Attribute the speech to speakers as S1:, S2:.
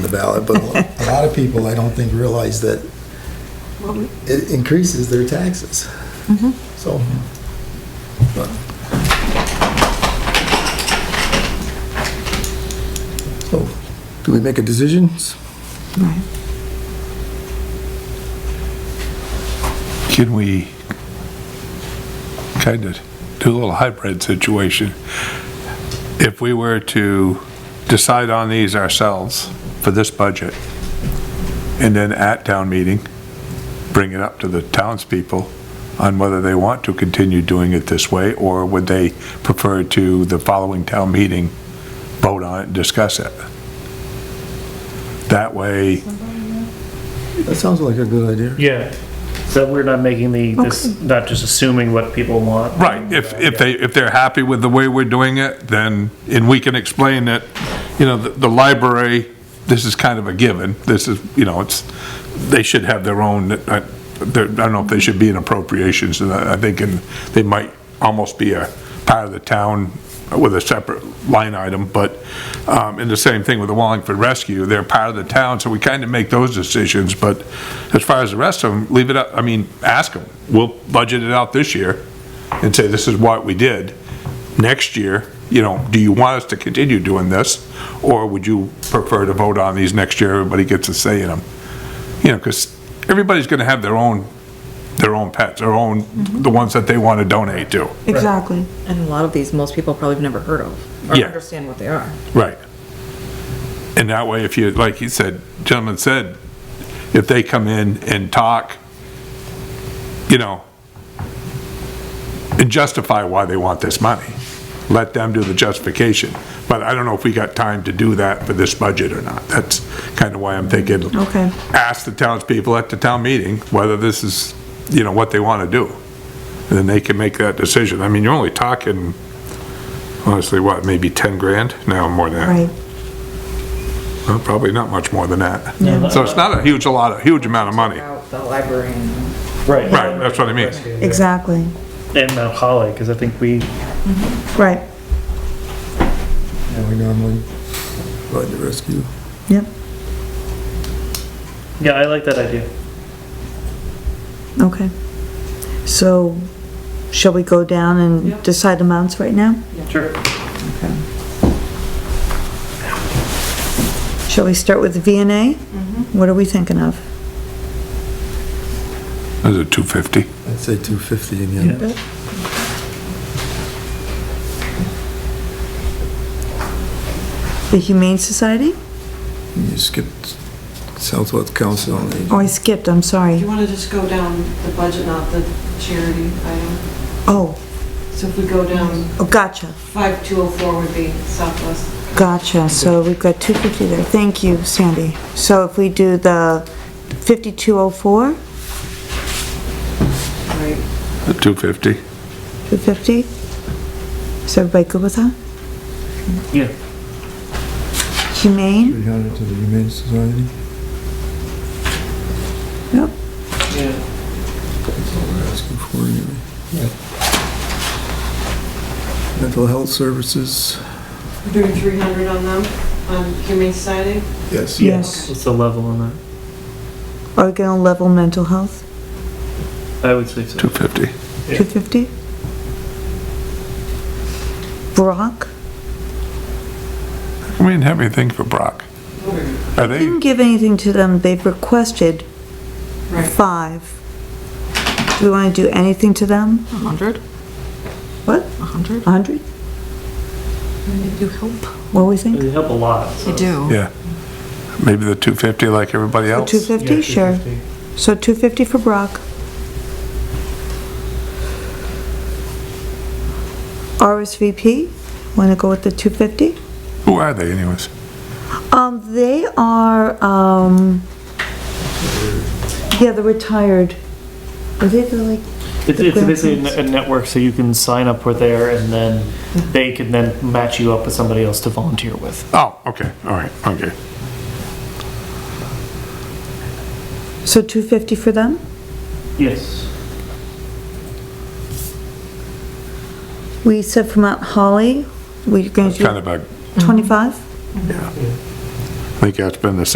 S1: ballot, but a lot of people, I don't think, realize that it increases their taxes. So, but- so, do we make a decision?
S2: Can we kind of do a little hybrid situation? If we were to decide on these ourselves for this budget, and then at town meeting, bring it up to the townspeople on whether they want to continue doing it this way, or would they prefer to the following town meeting vote on it and discuss it? That way,
S1: That sounds like a good idea.
S3: Yeah, so we're not making the, this, not just assuming what people want.
S2: Right, if, if they, if they're happy with the way we're doing it, then, and we can explain that, you know, the, the library, this is kind of a given, this is, you know, it's, they should have their own, uh, their- I don't know if they should be in appropriations, and I I think, and they might almost be a part of the town with a separate line item, but, um, and the same thing with the Wallingford Rescue, they're part of the town, so we kind of make those decisions, but as far as the rest of them, leave it up, I mean, ask them, we'll budget it out this year, and say, this is what we did. Next year, you know, do you want us to continue doing this? Or would you prefer to vote on these next year, everybody gets a say in them? You know, because everybody's gonna have their own, their own pets, their own, the ones that they want to donate to.
S4: Exactly.
S5: And a lot of these, most people probably have never heard of, or
S2: Yeah.
S5: understand what they are.
S2: Right. And that way, if you, like he said, gentleman said, if they come in and talk, you know, and justify why they want this money, let them do the justification. But I don't know if we got time to do that for this budget or not. That's kind of why I'm thinking.
S4: Okay.
S2: Ask the townspeople at the town meeting whether this is, you know, what they want to do. And then they can make that decision. I mean, you're only talking, honestly, what, maybe 10 grand? No, more than that.
S4: Right.
S2: Well, Probably not much more than that.
S3: Yeah.
S2: So it's not a huge, a lot, a huge amount of money.
S5: About the library and
S3: Right.
S2: Right, that's what I mean.
S4: Exactly.
S3: And Mount Holly, because I think we,
S4: Right.
S1: Yeah, we normally run the rescue.
S4: Yep.
S3: yeah, I like that idea.
S4: Okay. So shall we go down and decide amounts right now?
S3: Sure.
S4: Shall we start with V and A? What are we thinking of?
S2: Is it 250?
S1: I'd say 250 again.
S4: The Humane Society?
S1: You skipped Southwest Council on Aging.
S4: Oh, I skipped, I'm
S6: You
S4: sorry.
S6: want to just go down the budget, not the charity item?
S4: Oh,
S6: So if we go down,
S4: oh, gotcha,
S6: 5204 would be Southwest.
S4: gotcha. So we've got 250 there. Thank you, Sandy. So if we do the 5204,
S6: Right.
S2: The 250?
S4: 250? Is everybody good with that?
S3: Yeah,
S4: Humane?
S1: 300 to the Humane Society.
S4: Yep.
S6: Yeah.
S1: That's all we're asking for anyway. Mental health services.
S6: We're Doing 300 on them, on Humane Society?
S1: Yes.
S4: Yes.
S3: what's the level on that?
S4: Are we gonna level mental health?
S3: I would say so.
S2: 250.
S3: Yeah.
S4: 250? Brock?
S2: I mean, have anything for Brock? Are they,
S4: Didn't give anything to them, they've requested
S6: Right.
S4: five. Do we wanna do anything to them?
S5: 100,
S4: What,
S5: 100?
S4: 100?
S5: You help.
S4: What do we think?
S3: They help a lot.
S5: You do.
S2: yeah. Maybe the 250 like everybody
S4: Or
S2: else?
S4: 250, sure. So 250 for Brock. RSVP, wanna go with the 250?
S2: Who are they anyways?
S4: Um, they are, um, yeah, the retired, are they the, like,
S3: It's, it's basically a ne- a network, so you can sign up for there, and then they can then match you up with somebody else to volunteer with.
S2: Oh, okay, all right, okay.
S4: so 250 for them?
S3: Yes.
S4: We said for Mount Holly, we're going
S2: It's kind
S4: to
S2: of a,
S4: do 25?
S2: I think that's been the